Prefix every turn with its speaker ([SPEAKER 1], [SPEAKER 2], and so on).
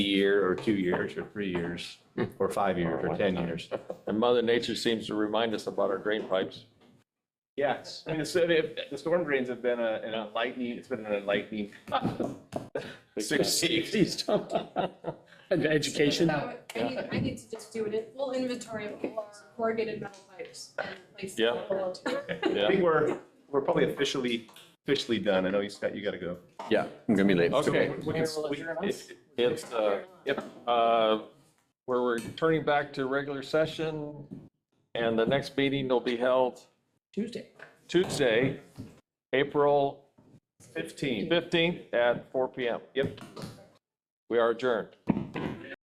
[SPEAKER 1] year or two years or three years or five years or 10 years.
[SPEAKER 2] And Mother Nature seems to remind us about our drain pipes.
[SPEAKER 3] Yes, I mean, the, s- the the storm drains have been a- an enlightening, it's been an enlightening. Sixty.
[SPEAKER 4] And education.
[SPEAKER 5] So uh, I need, I need to just do an full inventory of all our corrugated metal pipes and replace
[SPEAKER 2] Yeah.
[SPEAKER 5] them all.
[SPEAKER 3] I think we're, we're probably officially, officially done. I know you, Scott, you gotta go.
[SPEAKER 2] Yeah, I'm gonna be late. Okay.
[SPEAKER 3] We can s- we- if-
[SPEAKER 2] It's, uh, yep, uh, we're returning back to regular session, and the next meeting will be held
[SPEAKER 4] Tuesday.
[SPEAKER 2] Tuesday, April
[SPEAKER 3] Fifteen.
[SPEAKER 2] 15th at four PM.
[SPEAKER 3] Yep.
[SPEAKER 2] We are adjourned.